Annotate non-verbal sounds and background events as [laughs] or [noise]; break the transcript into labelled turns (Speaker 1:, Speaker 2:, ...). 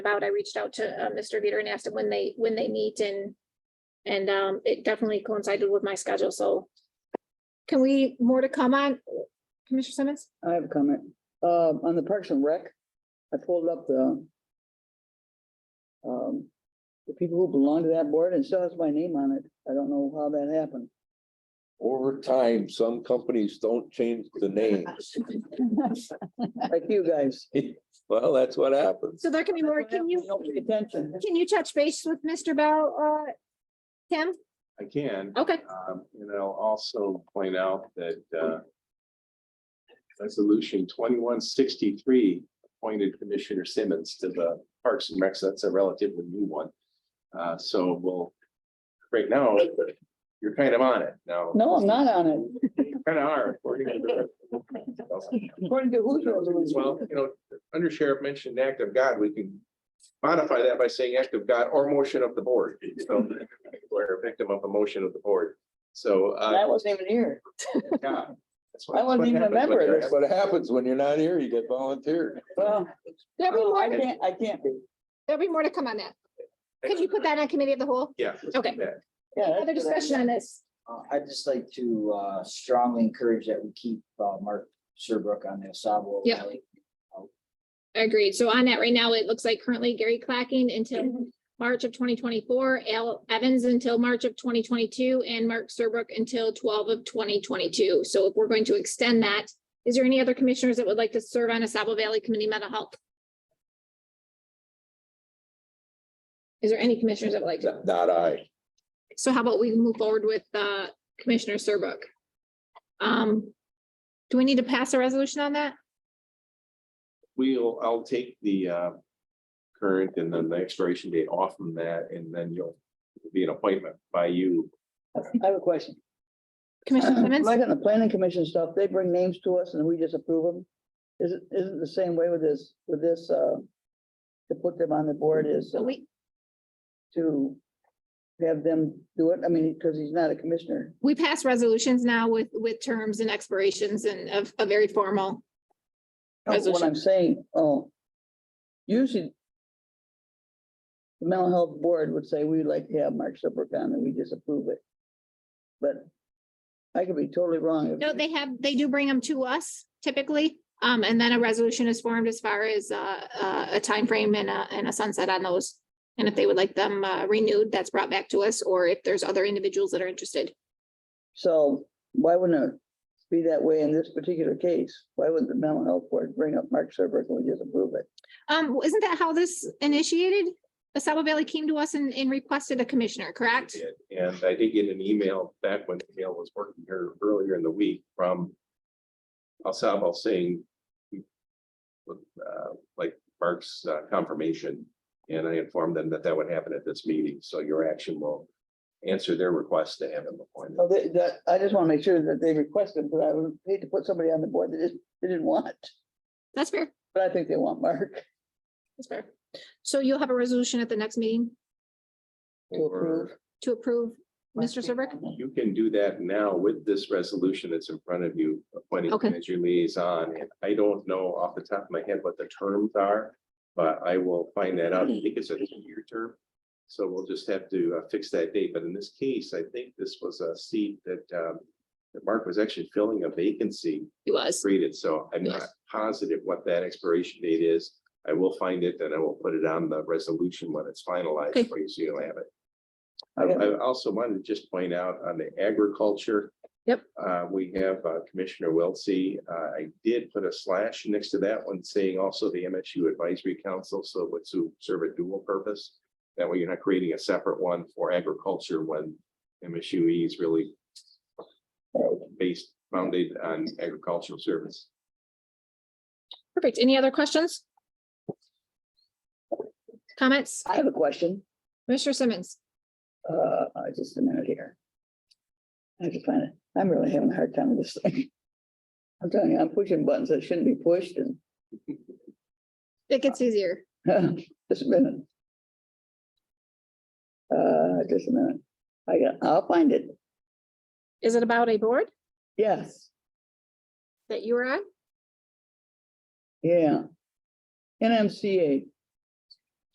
Speaker 1: about. I reached out to uh, Mr. Veter and asked him when they, when they meet and and um, it definitely coincided with my schedule, so can we, more to come on, Commissioner Simmons?
Speaker 2: I have a comment. Um, on the Parks and Rec, I pulled up the um, the people who belong to that board and still has my name on it. I don't know how that
Speaker 1: [laughs]
Speaker 2: happened.
Speaker 3: Over time, some companies don't change the names.
Speaker 2: Like you guys.
Speaker 3: Well, that's what happens.
Speaker 1: So there can be more, can you,
Speaker 2: Don't pay attention.
Speaker 1: can you touch base with Mr. Bell, uh, Tim?
Speaker 4: I can,
Speaker 1: Okay,
Speaker 4: um, and I'll also point out that, uh, resolution twenty-one sixty-three appointed Commissioner Simmons to the Parks and Recs. That's a relatively new one. Uh, so we'll, right now, you're kind of on it now.
Speaker 2: No, I'm not on it.
Speaker 4: You Kind of are. according to the-
Speaker 2: According to who's
Speaker 4: Well, you know, under sheriff mentioned act of God, we can modify that by saying act of God or motion of the board. So we're a victim of a motion of the board. So. uh,
Speaker 2: I wasn't even here.
Speaker 4: yeah, that's what-
Speaker 2: I wasn't even a
Speaker 4: that's what
Speaker 2: member of
Speaker 4: happens.
Speaker 3: That's what happens when you're not here, you get volunteered.
Speaker 2: Well,
Speaker 1: there'll be
Speaker 2: Oh, I
Speaker 1: more,
Speaker 2: can't, I can't be.
Speaker 1: there'll be more to come on that. Could you put that on committee of the whole?
Speaker 4: Yeah. let's do
Speaker 1: Okay.
Speaker 4: that.
Speaker 5: Yeah, that's
Speaker 1: Other
Speaker 5: what I-
Speaker 1: discussion on this?
Speaker 5: Uh, I'd just like to uh, strongly encourage that we keep uh, Mark Serbrook on the Osabo.
Speaker 1: Yeah.
Speaker 5: Valley.
Speaker 1: Agreed. So on that right now, it looks like currently Gary Clacking until March of twenty twenty-four, Al Evans until March of twenty twenty-two, and Mark Serbrook until twelve of twenty twenty-two. So if we're going to extend that, is there any other commissioners that would like to serve on a Sabo Valley Committee Mental Health? Is there any commissioners that would like to?
Speaker 3: Not I.
Speaker 1: So how about we move forward with uh, Commissioner Serbrook? Um, do we need to pass a resolution on that?
Speaker 4: We'll, I'll take the uh, current and then the expiration date off from that, and then you'll it'll be an appointment by you.
Speaker 2: I have a question.
Speaker 1: Commissioner
Speaker 2: [clears throat]
Speaker 1: Simmons?
Speaker 2: Uh, Like on the planning commission stuff, they bring names to us and we just approve them. Isn't, isn't the same way with this, with this, uh, to put them on the board is.
Speaker 1: So we,
Speaker 2: to have them do it? I mean, because he's not a commissioner.
Speaker 1: we pass resolutions now with, with terms and expirations and of, a very formal.
Speaker 2: That's What
Speaker 1: Resolution.
Speaker 2: I'm saying, oh, usually the mental health board would say, we'd like to have Mark Serbrook on and we disapprove it. But I could be totally wrong.
Speaker 1: No, they have, they do bring them to us typically. Um, and then a resolution is formed as far as uh, uh, a timeframe and a, and a sunset on those. And if they would like them uh, renewed, that's brought back to us, or if there's other individuals that are interested.
Speaker 2: So why wouldn't it be that way in this particular case? Why would the mental health board bring up Mark Serbrook and we disapprove it?
Speaker 1: Um, isn't that how this initiated? Asaba Valley came to us and, and requested a commissioner, correct?
Speaker 4: And I did get an email back when Gail was working here earlier in the week from Alsab saying uh, like Mark's uh, confirmation, and I informed them that that would happen at this meeting, so your action will answer their request to have him appointed.
Speaker 2: Oh, they, that, I just want to make sure that they requested, but I would hate to put somebody on the board that just, they didn't want.
Speaker 1: That's fair.
Speaker 2: But I think they want Mark.
Speaker 1: That's fair. So you'll have a resolution at the next meeting
Speaker 2: To approve.
Speaker 1: to approve Mr. Serbrook?
Speaker 4: You can do that now with this resolution that's in front of you, appointing
Speaker 1: Okay.
Speaker 4: him as your liaison. And I don't know off the top of my head what the terms are, but I will find that out. I think it's a two-year term. So we'll just have to uh, fix that date. But in this case, I think this was a seat that um, that Mark was actually filling a vacancy
Speaker 1: He was.
Speaker 4: created. So I'm not
Speaker 1: Yes.
Speaker 4: positive what that expiration date is. I will find it and I will put it on the resolution when it's
Speaker 1: Okay.
Speaker 4: finalized for you, so you'll have it. I,
Speaker 2: Okay.
Speaker 4: I also wanted to just point out on the agriculture.
Speaker 1: Yep.
Speaker 4: Uh, we have uh, Commissioner Wiltsey. Uh, I did put a slash next to that one saying also the MSU Advisory Council, so it would su- serve a dual purpose. That way you're not creating a separate one for agriculture when MSU E is really uh, based, founded on agricultural service.
Speaker 1: Perfect. Any other questions? Comments?
Speaker 2: I have a question,
Speaker 1: Mr. Simmons?
Speaker 2: uh, uh, just a minute here. I have to find it. I'm really having a hard time with this thing. I'm telling you, I'm pushing buttons that shouldn't be pushed and
Speaker 1: It gets easier.
Speaker 2: [laughs] just a minute. Uh, just a minute. I got, I'll find it.
Speaker 1: Is it about a board
Speaker 2: Yes,
Speaker 1: that you were on?
Speaker 2: yeah. NMCA,